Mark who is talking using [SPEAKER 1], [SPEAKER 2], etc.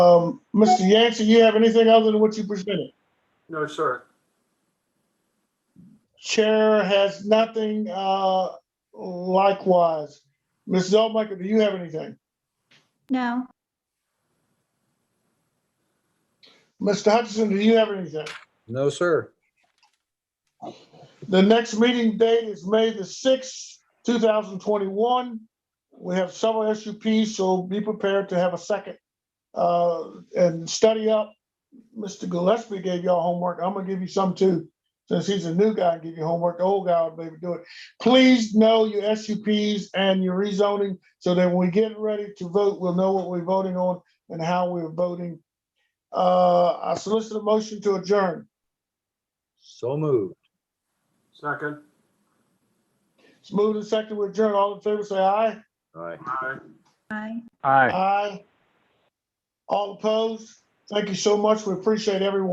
[SPEAKER 1] Um, Mr. Yancey, you have anything other than what you presented?
[SPEAKER 2] No, sir.
[SPEAKER 1] Chair has nothing, uh, likewise. Mrs. Altmaker, do you have anything?
[SPEAKER 3] No,
[SPEAKER 1] Mr. Hutchinson, do you have anything?
[SPEAKER 4] No, sir.
[SPEAKER 1] The next meeting date is May the sixth, two thousand twenty-one. We have several SUPs, so be prepared to have a second. Uh, and study up. Mr. Gillespie gave y'all homework. I'm gonna give you some too. Since he's a new guy, give you homework. The old guy would maybe do it. Please know your SUPs and your rezoning so that when we get ready to vote, we'll know what we're voting on and how we're voting. Uh, I solicit a motion to adjourn.
[SPEAKER 4] So moved.
[SPEAKER 2] Second.
[SPEAKER 1] It's moved and seconded. We adjourn. All in favor, say aye.
[SPEAKER 4] All right.
[SPEAKER 2] Aye.
[SPEAKER 3] I.
[SPEAKER 1] Aye. All opposed? Thank you so much. We appreciate everyone.